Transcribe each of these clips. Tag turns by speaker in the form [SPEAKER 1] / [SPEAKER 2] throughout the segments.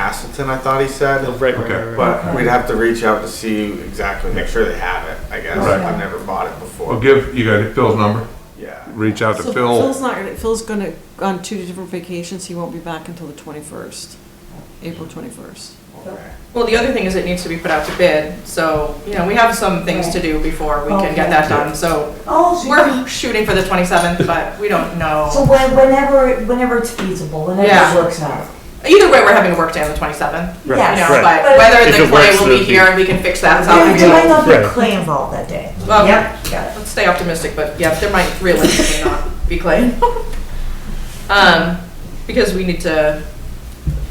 [SPEAKER 1] Castleton, I thought he said.
[SPEAKER 2] Oh, Right, right,
[SPEAKER 3] Okay.
[SPEAKER 2] right, right.
[SPEAKER 1] But we'd have to reach out to see exactly, make sure they have it, I guess.
[SPEAKER 3] Right.
[SPEAKER 1] I've never bought it before.
[SPEAKER 3] Well, give, you got Phil's number,
[SPEAKER 1] Yeah.
[SPEAKER 3] reach out to
[SPEAKER 4] So
[SPEAKER 3] Phil.
[SPEAKER 4] Phil's not, gonna- Phil's gonna, on two different vacations, he won't be back until the twenty-first, April twenty-first.
[SPEAKER 1] Okay.
[SPEAKER 5] Well, the other thing is it needs to be put out to bid, so, you know, we have some things to do before we can get that done, so
[SPEAKER 6] Oh, so you-
[SPEAKER 5] we're shooting for the twenty-seventh, but we don't
[SPEAKER 6] so
[SPEAKER 5] know.
[SPEAKER 6] when- whenever, whenever it's feasible, whenever
[SPEAKER 5] Yeah.
[SPEAKER 6] it works out.
[SPEAKER 5] Either way, we're having a work day on the twenty-seventh, you
[SPEAKER 6] Yes.
[SPEAKER 5] know,
[SPEAKER 2] Right.
[SPEAKER 5] but whether
[SPEAKER 2] If
[SPEAKER 5] the
[SPEAKER 2] it
[SPEAKER 5] clay
[SPEAKER 2] works,
[SPEAKER 5] will be
[SPEAKER 2] it'll
[SPEAKER 5] here
[SPEAKER 2] be-
[SPEAKER 5] and we can fix that,
[SPEAKER 6] Yeah,
[SPEAKER 5] so we
[SPEAKER 6] I might not
[SPEAKER 2] Right.
[SPEAKER 6] be clay involved that day.
[SPEAKER 5] Well-
[SPEAKER 6] Yep, got
[SPEAKER 5] Let's stay optimistic, but yeah, there might realistically not be clay. Um, because we need to,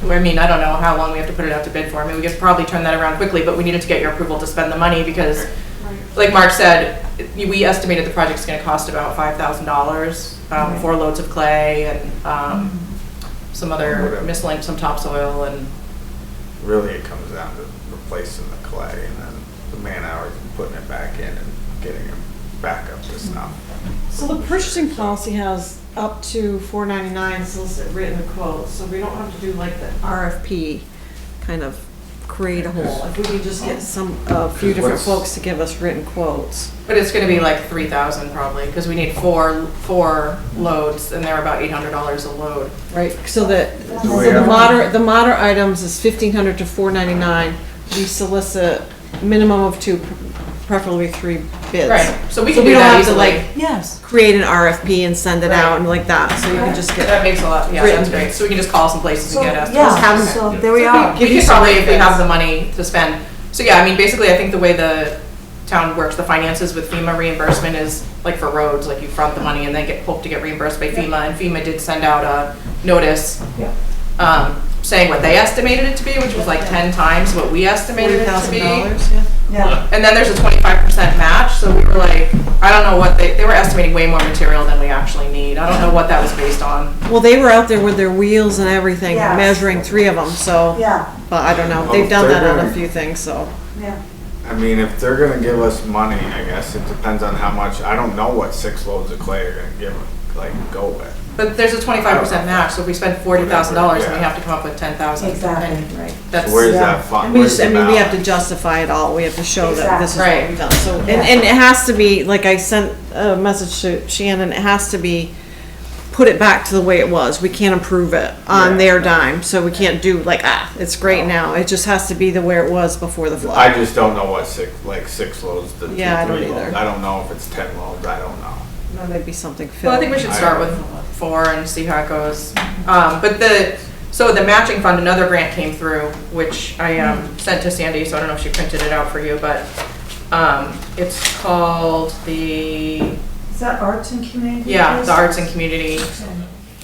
[SPEAKER 5] I mean, I don't know how long we have to put it out to bid for. I mean, we could probably turn that around quickly, but we needed to get your approval to spend the money because, like Mark said, we estimated the project's gonna cost about five thousand dollars, um,
[SPEAKER 6] Right.
[SPEAKER 5] four loads of clay and, um, some other
[SPEAKER 1] Whatever.
[SPEAKER 5] miscellaneous, some topsoil and,
[SPEAKER 1] Really, it comes down to replacing the clay and then the man hours and putting it back in and getting it back up to snuff.
[SPEAKER 4] So the purchasing policy has up to four ninety-nine solicit written quotes, so we don't have to do like the RFP kind of create a whole. If we could just get some, a few different
[SPEAKER 1] Because what's-
[SPEAKER 4] folks to give us written quotes.
[SPEAKER 5] but it's gonna be like three thousand probably, because we need four, four loads and they're about eight hundred dollars a load.
[SPEAKER 4] Right, so that,
[SPEAKER 1] Do
[SPEAKER 4] so
[SPEAKER 1] we
[SPEAKER 4] the
[SPEAKER 1] have-
[SPEAKER 4] moderate, the moderate items is fifteen hundred to four ninety-nine. We solicit minimum of two, preferably three bids.
[SPEAKER 5] Right, so we
[SPEAKER 4] So
[SPEAKER 5] can
[SPEAKER 4] we don't
[SPEAKER 5] do that
[SPEAKER 4] have to
[SPEAKER 5] easily.
[SPEAKER 4] like
[SPEAKER 6] Yes.
[SPEAKER 4] create an RFP and send it
[SPEAKER 5] Right.
[SPEAKER 4] out and like that, so you can just get.
[SPEAKER 5] That makes a lot, yeah, that's
[SPEAKER 4] Written.
[SPEAKER 5] great, so we can just call some places
[SPEAKER 6] So,
[SPEAKER 5] and get estimates.
[SPEAKER 6] yeah,
[SPEAKER 4] cabinet.
[SPEAKER 6] so there we
[SPEAKER 5] So
[SPEAKER 6] are.
[SPEAKER 5] We
[SPEAKER 4] Give
[SPEAKER 5] we
[SPEAKER 4] you
[SPEAKER 5] could
[SPEAKER 4] some
[SPEAKER 5] probably, if we
[SPEAKER 4] ideas.
[SPEAKER 5] have the money to spend, so yeah, I mean, basically, I think the way the town works, the finances with FEMA reimbursement is like for roads, like you front the money and then get, hope to get reimbursed by FEMA, and FEMA did send out a notice
[SPEAKER 6] Yeah.
[SPEAKER 5] um, saying what they estimated it to be, which was like ten times what we estimated it to
[SPEAKER 4] $40,000,
[SPEAKER 5] be.
[SPEAKER 4] yeah.
[SPEAKER 6] Yeah,
[SPEAKER 5] And then there's a twenty-five percent match, so we were like, I don't know what they, they were estimating way more material than we actually need, I don't know what that was based on.
[SPEAKER 4] Well, they were out there with their wheels and everything,
[SPEAKER 6] Yeah.
[SPEAKER 4] measuring three of them, so,
[SPEAKER 6] yeah,
[SPEAKER 4] but I don't know,
[SPEAKER 1] Oh,
[SPEAKER 4] they've done that
[SPEAKER 1] they're
[SPEAKER 4] on a
[SPEAKER 1] doing-
[SPEAKER 4] few things, so.
[SPEAKER 6] yeah.
[SPEAKER 1] I mean, if they're gonna give us money, I guess it depends on how much. I don't know what six loads of clay are gonna give, like, go with.
[SPEAKER 5] But there's a twenty-five percent match, so if we spend forty thousand dollars, then we
[SPEAKER 1] Yeah.
[SPEAKER 5] have to come up with ten thousand.
[SPEAKER 6] Exactly, right.
[SPEAKER 5] That's,
[SPEAKER 1] So where's
[SPEAKER 6] Yeah.
[SPEAKER 1] that fund?
[SPEAKER 4] And we
[SPEAKER 1] Where's
[SPEAKER 4] just, I
[SPEAKER 1] the
[SPEAKER 4] mean, we have
[SPEAKER 1] balance?
[SPEAKER 4] to justify it all, we have to show that this is
[SPEAKER 5] Exactly.
[SPEAKER 4] what we've done, so. And,
[SPEAKER 6] Yeah.
[SPEAKER 4] and it has to be, like I sent a message to Shannon, it has to be, put it back to the way it was, we can't improve it on
[SPEAKER 1] Yeah.
[SPEAKER 4] their dime, so we can't do like, ah, it's great now, it just has to be the where it was before the flood.
[SPEAKER 1] I just don't know what six, like six loads to two, three
[SPEAKER 4] Yeah, I don't
[SPEAKER 1] loads.
[SPEAKER 4] either.
[SPEAKER 1] I don't know if it's ten loads, I don't know.
[SPEAKER 4] That might be something Phil.
[SPEAKER 5] well, I think we should start with four and see how it goes. Um, but the, so the matching fund, another grant came through, which I, um, sent to Sandy, so I don't know if she printed it out for you, but, um, it's called the,
[SPEAKER 6] Is that arts and community?
[SPEAKER 5] yeah, the arts and community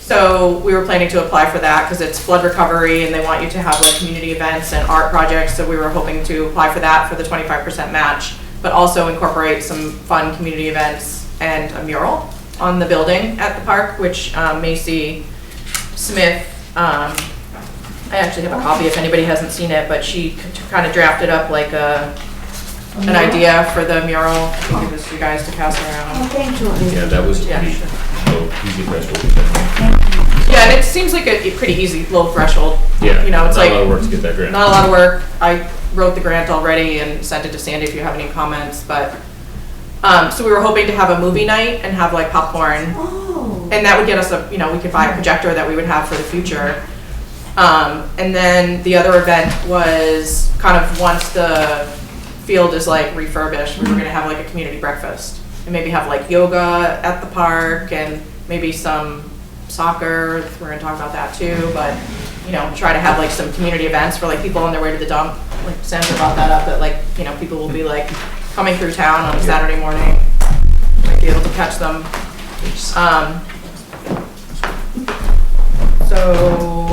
[SPEAKER 5] So we were planning to apply for that because it's flood recovery and they want you to have like community events and art projects. So we were hoping to apply for that for the twenty-five percent match, but also incorporate some fun community events and a mural on the building at the park, which um, Macy Smith, um, I actually have a copy if anybody hasn't seen it, but she kind of drafted up like a, an idea for the mural. I can give this to you guys to pass
[SPEAKER 6] Oh,
[SPEAKER 5] around.
[SPEAKER 6] thank you, Lee.
[SPEAKER 7] Yeah, that was
[SPEAKER 5] Yeah,
[SPEAKER 7] pretty,
[SPEAKER 5] sure.
[SPEAKER 7] oh, easy threshold.
[SPEAKER 5] Yeah, and it seems like a pretty easy, low threshold.
[SPEAKER 7] Yeah,
[SPEAKER 5] You know, it's
[SPEAKER 7] Not a lot of
[SPEAKER 5] like,
[SPEAKER 7] work to get that grant.
[SPEAKER 5] not a lot of work. I wrote the grant already and sent it to Sandy if you have any comments, but, um, so we were hoping to have a movie night and have like popcorn.
[SPEAKER 6] Oh.
[SPEAKER 5] And that would get us a, you know, we could buy a projector that we would have for the future. Um, and then the other event was kind of once the field is like refurbished, we were gonna have like a community breakfast. And maybe have like yoga at the park and maybe some soccer, we're gonna talk about that too, but, you know, try to have like some community events for like people on their way to the dump. Like Sandra brought that up, that like, you know, people will be like coming through town on a Saturday morning, might be able to catch them. Um, so,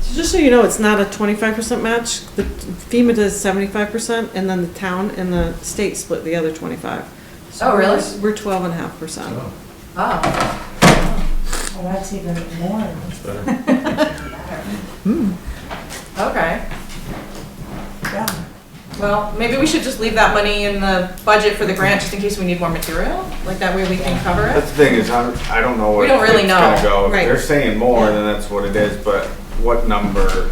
[SPEAKER 4] So Just so you know, it's not a twenty-five percent match. The FEMA does seventy-five percent, and then the town and the state split the other twenty-five. So
[SPEAKER 5] Oh, really?
[SPEAKER 4] we're- We're twelve and a half percent.
[SPEAKER 5] Oh,
[SPEAKER 6] Well, that's even more.
[SPEAKER 5] okay.
[SPEAKER 6] Yeah.
[SPEAKER 5] Well, maybe we should just leave that money in the budget for the grant, just in case we need more material? Like, that way we can cover
[SPEAKER 1] That's
[SPEAKER 5] it?
[SPEAKER 1] the thing is, I'm, I don't know
[SPEAKER 5] We
[SPEAKER 1] what
[SPEAKER 5] don't really
[SPEAKER 1] it's
[SPEAKER 5] know.
[SPEAKER 1] gonna go. If
[SPEAKER 4] Right.
[SPEAKER 1] They're saying more, then that's what it is, but what number,